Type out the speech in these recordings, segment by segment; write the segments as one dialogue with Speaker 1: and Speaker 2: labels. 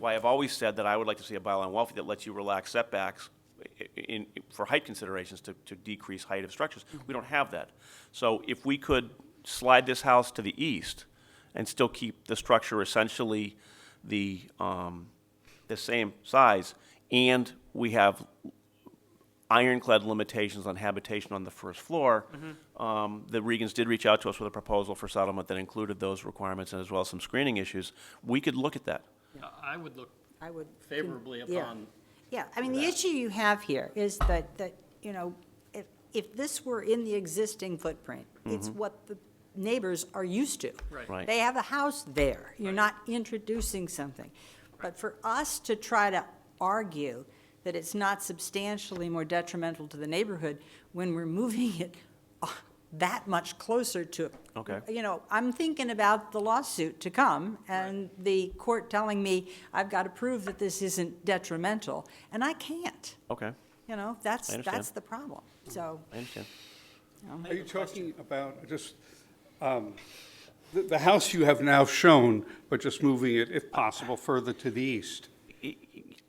Speaker 1: why I've always said that I would like to see a bylaw in Wellfleet that lets you relax setbacks i- in, for height considerations to, to decrease height of structures. We don't have that. So if we could slide this house to the east and still keep the structure essentially the, um, the same size, and we have ironclad limitations on habitation on the first floor. Um, The Regans did reach out to us with a proposal for settlement that included those requirements and as well as some screening issues. We could look at that.
Speaker 2: I would look
Speaker 3: I would. con-
Speaker 2: favorably
Speaker 3: yeah.
Speaker 2: upon,
Speaker 3: Yeah, I mean, the issue you have here is that, that, you know, if, if this were in the existing footprint, it's what the neighbors are used to.
Speaker 2: Right.
Speaker 1: Right.
Speaker 3: They have a house there. You're
Speaker 2: Right.
Speaker 3: not introducing something. But for us to try to argue that it's not substantially more detrimental to the neighborhood when we're moving it uh, that much closer to.
Speaker 1: Okay.
Speaker 3: You know, I'm thinking about the lawsuit to come and the court telling me I've got to prove that this isn't detrimental, and I can't.
Speaker 1: Okay,
Speaker 3: You know, that's,
Speaker 1: I understand.
Speaker 3: that's the problem. So,
Speaker 1: I understand.
Speaker 4: Are you talking about just, um, the, the house you have now shown, but just moving it, if possible, further to the east? I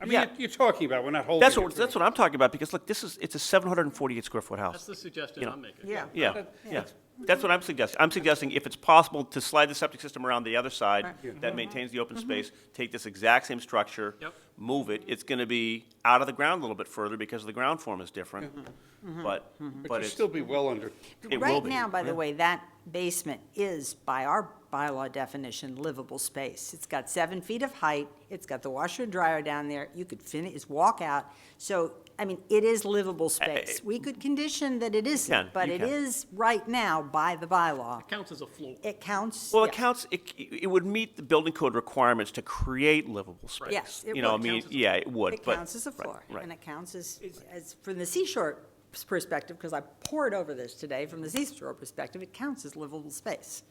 Speaker 4: mean,
Speaker 1: Yeah.
Speaker 4: you're- you're talking about, we're not holding
Speaker 1: That's
Speaker 4: it
Speaker 1: what,
Speaker 4: to
Speaker 1: that's
Speaker 4: it.
Speaker 1: what I'm talking about, because look, this is, it's a 748 square foot
Speaker 2: that's
Speaker 1: house.
Speaker 2: the suggestion I'm making.
Speaker 3: yeah.
Speaker 1: Yeah, yeah. That's what I'm suggesting. I'm suggesting if it's possible to slide the septic system around the other side that maintains the open
Speaker 3: Mm-hmm.
Speaker 1: space, take this exact same structure,
Speaker 2: Yep.
Speaker 1: move it, it's going to be out of the ground a little bit further because the ground form is different,
Speaker 3: Mm-hmm.
Speaker 1: but,
Speaker 4: But
Speaker 1: but
Speaker 4: you'd
Speaker 1: it's,
Speaker 4: still be well under,
Speaker 1: it will
Speaker 3: Right
Speaker 1: be,
Speaker 3: now, by the
Speaker 1: yeah.
Speaker 3: way, that basement is, by our bylaw definition, livable space. It's got seven feet of height, it's got the washer and dryer down there, you could finish, walk out. So, I mean, it is livable space. We could condition that it
Speaker 1: can,
Speaker 3: isn't, but
Speaker 1: you
Speaker 3: it
Speaker 1: can.
Speaker 3: is right now by the bylaw.
Speaker 2: It counts as a floor.
Speaker 3: It counts.
Speaker 1: Well,
Speaker 3: yeah.
Speaker 1: it counts, it, it would meet the building code requirements to create livable space.
Speaker 3: Yes, it
Speaker 1: You know, I
Speaker 3: would.
Speaker 1: mean,
Speaker 2: Counts as a-
Speaker 1: yeah, it would,
Speaker 3: It
Speaker 1: but-
Speaker 3: counts as a
Speaker 1: right,
Speaker 3: floor,
Speaker 1: right.
Speaker 3: and it counts as, as, from the seashore perspective, because I poured over this today, from the seashore perspective, it counts as livable space.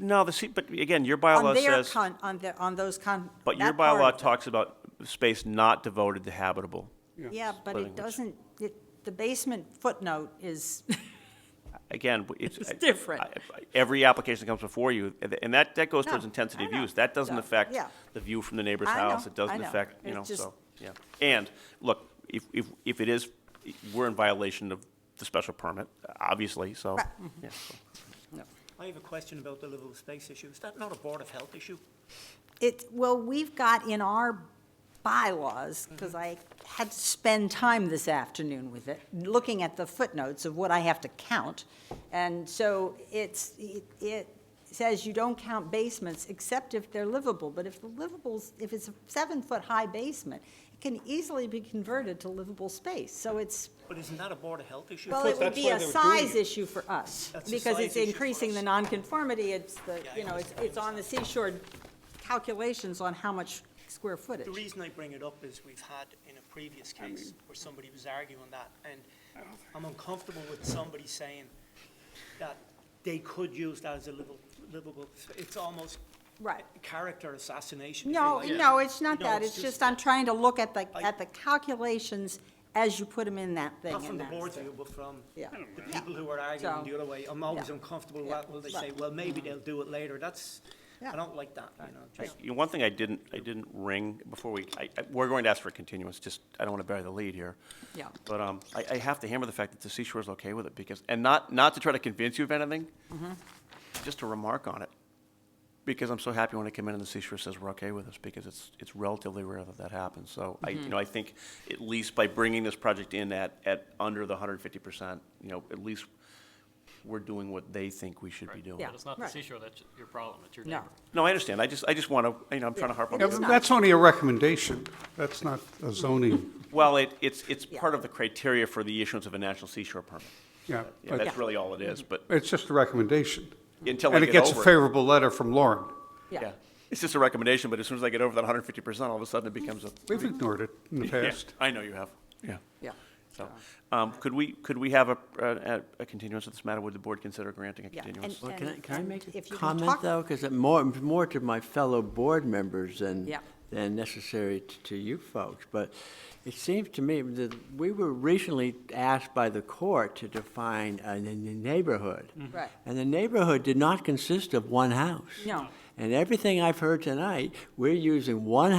Speaker 1: No, the, se- but again, your
Speaker 3: On
Speaker 1: bylaw
Speaker 3: their
Speaker 1: says,
Speaker 3: con, on the, on those con.
Speaker 1: but your
Speaker 3: that part
Speaker 1: bylaw
Speaker 3: of it.
Speaker 1: talks about space not devoted to habitable.
Speaker 3: Yeah, but
Speaker 1: Living,
Speaker 3: it
Speaker 1: which-
Speaker 3: doesn't, it, the basement footnote is,
Speaker 1: Again, w- it's.
Speaker 3: It's
Speaker 1: I-
Speaker 3: different.
Speaker 1: I- I- Every application that comes before you, and- and that, that goes towards
Speaker 3: No,
Speaker 1: intensity
Speaker 3: I
Speaker 1: of
Speaker 3: know.
Speaker 1: use. That doesn't
Speaker 3: So,
Speaker 1: affect
Speaker 3: yeah.
Speaker 1: the view from the neighbor's
Speaker 3: I know,
Speaker 1: house. It
Speaker 3: I
Speaker 1: doesn't
Speaker 3: know.
Speaker 1: affect, you
Speaker 3: It's
Speaker 1: know,
Speaker 3: just-
Speaker 1: so, yeah. And, look, if, if, if it is, we're in violation of the special permit, obviously, so,
Speaker 3: Right.
Speaker 1: yeah, so.
Speaker 5: I have a question about the livable space issue. Is that not a Board of Health issue?
Speaker 3: it, well, we've got in our bylaws, because I had to spend time this afternoon with it, looking at the footnotes of what I have to count. And so it's, it- it says you don't count basements except if they're livable. But if the livables, if it's a seven-foot-high basement, it can easily be converted to livable space. So it's,
Speaker 5: But isn't that a Board of Health issue?
Speaker 3: well, it would
Speaker 4: that's
Speaker 3: be
Speaker 4: why
Speaker 3: a
Speaker 4: they were doing
Speaker 3: size
Speaker 4: it.
Speaker 3: issue for us,
Speaker 5: That's a
Speaker 3: because
Speaker 5: size
Speaker 3: it's
Speaker 5: issue for
Speaker 3: increasing the
Speaker 5: us.
Speaker 3: nonconformity, it's the,
Speaker 5: Yeah, I
Speaker 3: you know, it's,
Speaker 5: understand,
Speaker 3: it's on the seashore calculations on how much square
Speaker 5: The
Speaker 3: footage.
Speaker 5: reason I bring it up is we've had in a previous case where somebody was arguing that, and I'm uncomfortable with somebody saying that they could use that as a livable, livable, it's almost
Speaker 3: Right.
Speaker 5: character assassination. if you
Speaker 3: No,
Speaker 5: like.
Speaker 3: no, it's not
Speaker 5: No,
Speaker 3: that,
Speaker 5: it's
Speaker 3: it's just
Speaker 5: just-
Speaker 3: I'm trying to look at the,
Speaker 5: I-
Speaker 3: at the calculations as you put them in that thing.
Speaker 5: Not from
Speaker 3: and
Speaker 5: the
Speaker 3: that's
Speaker 5: board's
Speaker 3: it.
Speaker 5: view, but from
Speaker 3: Yeah. I
Speaker 5: the people who are arguing
Speaker 3: So-
Speaker 5: the other way. I'm always
Speaker 3: Yeah.
Speaker 5: uncomfortable
Speaker 3: Yeah.
Speaker 5: with, will they say,
Speaker 3: Right. Mm-hmm.
Speaker 5: well, maybe they'll do it later. That's,
Speaker 3: Yeah.
Speaker 5: I don't like that, you know,
Speaker 1: I-
Speaker 5: just.
Speaker 1: you know, One thing I didn't, I didn't ring before we, I, I- we're going to ask for a continuance, just, I don't want to bury the lead here.
Speaker 3: Yeah.
Speaker 1: But um, I, I have to hammer the fact that the Seashore is okay with it because, and not, not to try to convince you of anything,
Speaker 3: Mm-hmm.
Speaker 1: just to remark on it. Because I'm so happy when I come in and the Seashore says we're okay with this because it's, it's relatively rare that that happens. So I,
Speaker 3: Mm-hmm.
Speaker 1: you know, I think at least by bringing this project in at, at under the hundred fifty percent, you know, at least we're doing what they think we should be doing.
Speaker 3: Yeah.
Speaker 2: But it's not the
Speaker 3: Right.
Speaker 2: seashore that's your problem, it's your
Speaker 3: No.
Speaker 2: neighbor.
Speaker 1: No, I understand. I just, I just want to, you know, I'm trying to harp on.
Speaker 4: Yeah,
Speaker 1: this.
Speaker 4: but that's only a recommendation, that's not a zoning,
Speaker 1: Well, it, it's, it's
Speaker 3: Yeah.
Speaker 1: part of the criteria for the issuance of a national seashore permit.
Speaker 4: yeah.
Speaker 1: Yeah,
Speaker 4: But
Speaker 1: that's really all it is, but
Speaker 4: it's just a recommendation.
Speaker 1: until I
Speaker 4: And it
Speaker 1: get
Speaker 4: gets a
Speaker 1: over it.
Speaker 4: favorable letter from Lauren.
Speaker 3: Yeah,
Speaker 1: It's just a recommendation, but as soon as I get over that hundred and fifty percent, all of a sudden it becomes a.
Speaker 4: We've ignored it in the
Speaker 1: Yeah,
Speaker 4: past.
Speaker 1: I know you have, yeah.
Speaker 3: yeah.
Speaker 1: So, um, could we, could we have a, a, a continuance of this matter? Would the board consider granting a
Speaker 3: Yeah, and-
Speaker 1: continuance?
Speaker 6: Well, can I, can I
Speaker 3: and
Speaker 6: make a
Speaker 3: if you can
Speaker 6: comment,
Speaker 3: talk-
Speaker 6: though? Because more, more to my fellow board members than,
Speaker 3: Yeah.
Speaker 6: than necessary t- to you folks. But it seems to me that we were recently asked by the court to define a n- n- neighborhood.
Speaker 3: Right.
Speaker 6: And the neighborhood did not consist of one house.
Speaker 3: No.
Speaker 6: And everything I've heard tonight, we're using one